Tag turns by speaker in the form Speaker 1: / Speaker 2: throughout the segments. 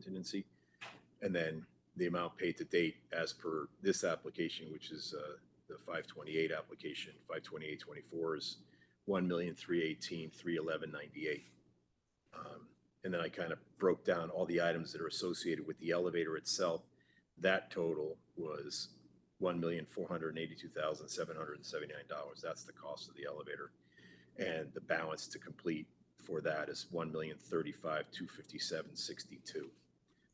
Speaker 1: contingency. And then the amount paid to date as per this application, which is uh, the 528 application, 52824 is 1,318,311.98. Um, And then I kind of broke down all the items that are associated with the elevator itself. That total was $1,482,779. That's the cost of the elevator. And the balance to complete for that is $1,035,257.62.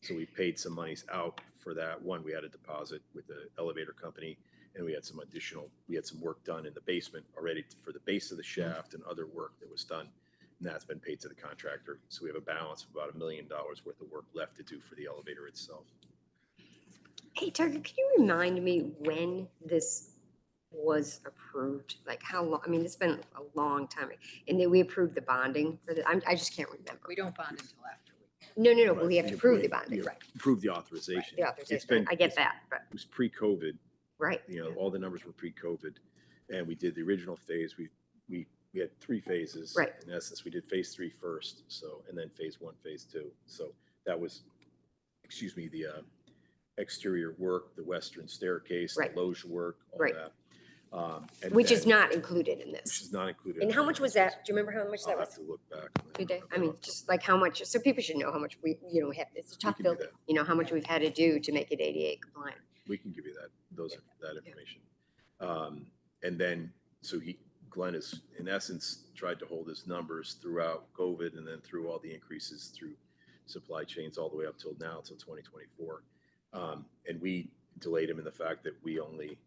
Speaker 1: So we paid some monies out for that. One, we had a deposit with the elevator company and we had some additional, we had some work done in the basement already for the base of the shaft and other work that was done. And that's been paid to the contractor. So we have a balance of about a million dollars worth of work left to do for the elevator itself.
Speaker 2: Hey, Tucker, can you remind me when this was approved? Like how long, I mean, it's been a long time. And then we approved the bonding for the, I'm, I just can't remember.
Speaker 3: We don't bond until after.
Speaker 2: No, no, no, but we have to
Speaker 1: Right,
Speaker 2: approve the
Speaker 1: you-
Speaker 2: bonding,
Speaker 1: you
Speaker 2: right?
Speaker 1: Approve the authorization.
Speaker 2: The
Speaker 1: It's
Speaker 2: authorization.
Speaker 1: been-
Speaker 2: I get
Speaker 1: it's-
Speaker 2: that, but,
Speaker 1: It was pre-COVID.
Speaker 2: right.
Speaker 1: you know, all the numbers were pre-COVID. And we did the original phase, we, we, we had three phases.
Speaker 2: Right.
Speaker 1: In essence, we did phase three first, so, and then phase one, phase two. So that was, excuse me, the uh, exterior work, the western staircase, the
Speaker 2: Right.
Speaker 1: loge work, all
Speaker 2: Right.
Speaker 1: that. Um, and
Speaker 2: Which is
Speaker 1: then-
Speaker 2: not included in
Speaker 1: Which
Speaker 2: this.
Speaker 1: is not included.
Speaker 2: And
Speaker 1: in
Speaker 2: how
Speaker 1: the
Speaker 2: much was
Speaker 1: numbers.
Speaker 2: that? Do you remember how much that
Speaker 1: I'll have
Speaker 2: was?
Speaker 1: to look back.
Speaker 2: Did they?
Speaker 1: remember
Speaker 2: I mean,
Speaker 1: that.
Speaker 2: just like how much, so people should know how much we, you know, have, it's a
Speaker 1: We
Speaker 2: tough
Speaker 1: can do
Speaker 2: building.
Speaker 1: that.
Speaker 2: You know, how much we've had to do to make it ADA compliant.
Speaker 1: We can give you that, those, that information. Um, and then, so he, Glenn has, in essence, tried to hold his numbers throughout COVID and then through all the increases through supply chains all the way up till now, till twenty twenty-four. Um, and we delayed him in the fact that we only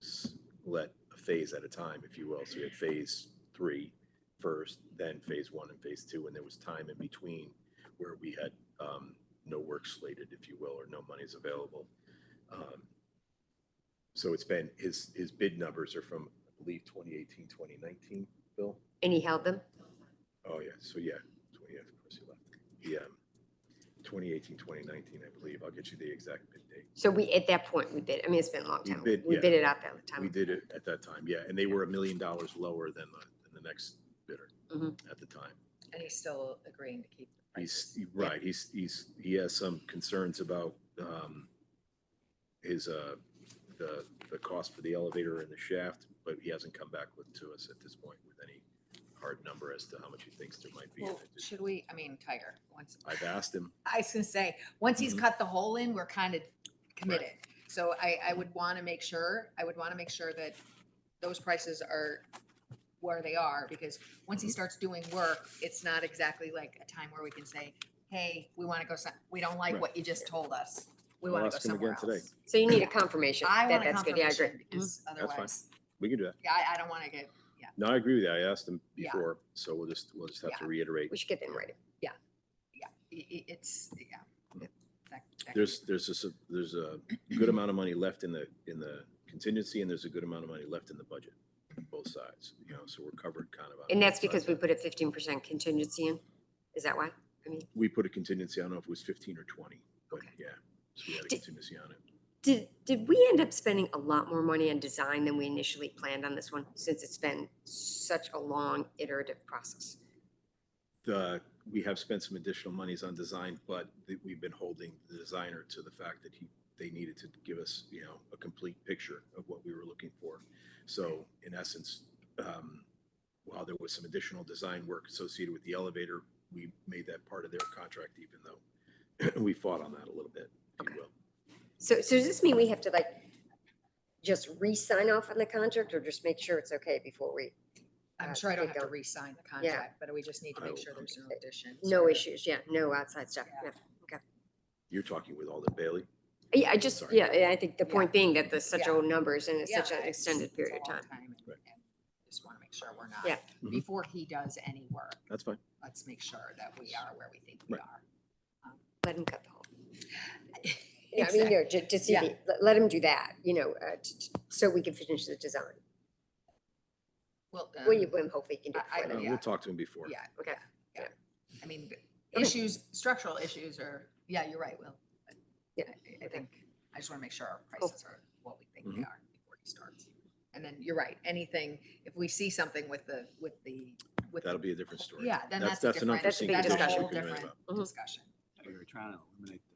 Speaker 1: s- let a phase at a time, if you will. So we had phase three first, then phase one and phase two, and there was time in between where we had, um, no work slated, if you will, or no monies available. Um, So it's been, his, his bid numbers are from, I believe, 2018, 2019, Bill?
Speaker 2: And he held them?
Speaker 1: Oh, yeah, so yeah, 20, yeah, of course he left. um, Yeah, 2018, 2019, I believe. I'll get you the exact bid date.
Speaker 2: So we, at that point, we bid, I mean, it's been a long
Speaker 1: We
Speaker 2: time.
Speaker 1: bid,
Speaker 2: We
Speaker 1: yeah.
Speaker 2: bid it out that time.
Speaker 1: We did it at that time, yeah, and they were a million dollars lower than the, than the next bidder
Speaker 2: Mhm.
Speaker 1: at the time.
Speaker 3: And he's still agreeing to keep. the
Speaker 1: He's,
Speaker 3: prices.
Speaker 1: he- right, he's, he's, he has some concerns about, um, his, uh, the, the cost for the elevator and the shaft, but he hasn't come back with, to us at this point with any hard number as to how much he thinks there might be. in
Speaker 3: Well,
Speaker 1: it.
Speaker 3: should we, I mean, Tiger, once,
Speaker 1: I've asked him,
Speaker 3: I was gonna say, once he's
Speaker 1: Mhm.
Speaker 3: cut the hole in, we're kind of committed. So I, I would want to make sure, I would want to make sure that those prices are where they are, because once he
Speaker 1: Mhm.
Speaker 3: starts doing work, it's not exactly like a time where we can say, hey, we want to go, some- we don't like
Speaker 1: Right.
Speaker 3: what you just told us. We
Speaker 1: I'll
Speaker 3: want to go
Speaker 1: ask him
Speaker 3: somewhere
Speaker 1: again today.
Speaker 3: else.
Speaker 2: So you need a confirmation
Speaker 3: I
Speaker 2: that
Speaker 3: want a
Speaker 2: that's good. Yeah, I agree.
Speaker 3: confirmation, because
Speaker 1: fine.
Speaker 3: otherwise,
Speaker 1: we can do that.
Speaker 3: yeah, I, I don't want to get, yeah.
Speaker 1: No, I agree with you, I asked him
Speaker 3: Yeah.
Speaker 1: before, so we'll just, we'll just have to
Speaker 3: Mm-hmm.
Speaker 1: reiterate.
Speaker 2: We should get them ready.
Speaker 3: i- i- it's, yeah.
Speaker 1: Mhm.
Speaker 3: that- that-
Speaker 1: There's, there's a, s- there's a good amount of money left in the, in the contingency, and there's a good amount of money left in the budget, both sides, you know, so we're covered kind of. on
Speaker 2: And
Speaker 1: both
Speaker 2: that's
Speaker 1: sides.
Speaker 2: because we put a fifteen percent contingency in? Is that why? I mean,
Speaker 1: We put a contingency, I don't know if it was fifteen or twenty, but
Speaker 2: Okay.
Speaker 1: yeah, so we had a
Speaker 2: Did-
Speaker 1: contingency on it.
Speaker 2: did, did we end up spending a lot more money on design than we initially planned on this one? Since it's been such a long iterative process?
Speaker 1: The, we have spent some additional monies on design, but th- we've been holding the designer to the fact that he, they needed to give us, you know, a complete picture of what we were looking for. So in essence, um, while there was some additional design work associated with the elevator, we made that part of their contract, even though we fought on that a little bit, if
Speaker 2: Okay.
Speaker 1: you will.
Speaker 2: So, so does this mean we have to like just re-sign off on the contract or just make sure it's okay before we,
Speaker 3: I'm
Speaker 2: uh,
Speaker 3: sure I don't
Speaker 2: take
Speaker 3: have to
Speaker 2: out-
Speaker 3: re-sign the contract, but we just need to
Speaker 1: I
Speaker 3: make
Speaker 1: will-
Speaker 3: sure there's no additions.
Speaker 2: no
Speaker 3: or-
Speaker 2: issues? Yeah, no outside stuff.
Speaker 3: Yeah.
Speaker 2: Yeah.
Speaker 1: You're talking with Alden Bailey?
Speaker 2: Yeah, I just,
Speaker 1: Sorry.
Speaker 2: yeah, yeah, I think the
Speaker 3: Yeah.
Speaker 2: point being that there's such
Speaker 3: Yeah.
Speaker 2: old numbers and it's
Speaker 3: Yeah,
Speaker 2: such an
Speaker 3: it's-
Speaker 2: extended
Speaker 3: it's a
Speaker 2: period of
Speaker 3: long
Speaker 2: time.
Speaker 3: and-
Speaker 1: Right.
Speaker 3: and Just want to make sure we're not.
Speaker 2: Yeah.
Speaker 1: Mhm.
Speaker 3: Before he does any work,
Speaker 1: That's fine.
Speaker 3: let's make sure that we are where we think we
Speaker 1: Right.
Speaker 3: are.
Speaker 2: Let him cut the hole. Yeah, I mean, you know, to, to see,
Speaker 3: Yeah.
Speaker 2: the- let- let him do that, you know, uh, t- t- so we can finish the design.
Speaker 3: Well, um,
Speaker 2: Well, you, well, hopefully you can do
Speaker 3: I- I
Speaker 1: Uh,
Speaker 2: it before then.
Speaker 3: yeah.
Speaker 1: We'll talk to him before.
Speaker 3: yeah,
Speaker 2: Okay.
Speaker 3: I mean, b-
Speaker 2: Okay.
Speaker 3: issues, structural issues are, yeah, you're right, Will. I-
Speaker 2: Yeah,
Speaker 3: I I think, I just want to make sure our prices are what we think
Speaker 2: Mm-hmm.
Speaker 3: they
Speaker 1: Mhm.
Speaker 3: are before he starts. And then you're right, anything, if we see something with the, with the, with the
Speaker 1: That'll be a different story.
Speaker 3: Yeah, then
Speaker 1: That's-
Speaker 3: that's a
Speaker 1: that's an
Speaker 3: different, that's
Speaker 2: unforeseen
Speaker 3: a
Speaker 2: condition
Speaker 3: whole
Speaker 1: we can write
Speaker 3: different
Speaker 1: about.
Speaker 2: Mhm.
Speaker 3: discussion.
Speaker 4: we were trying to eliminate the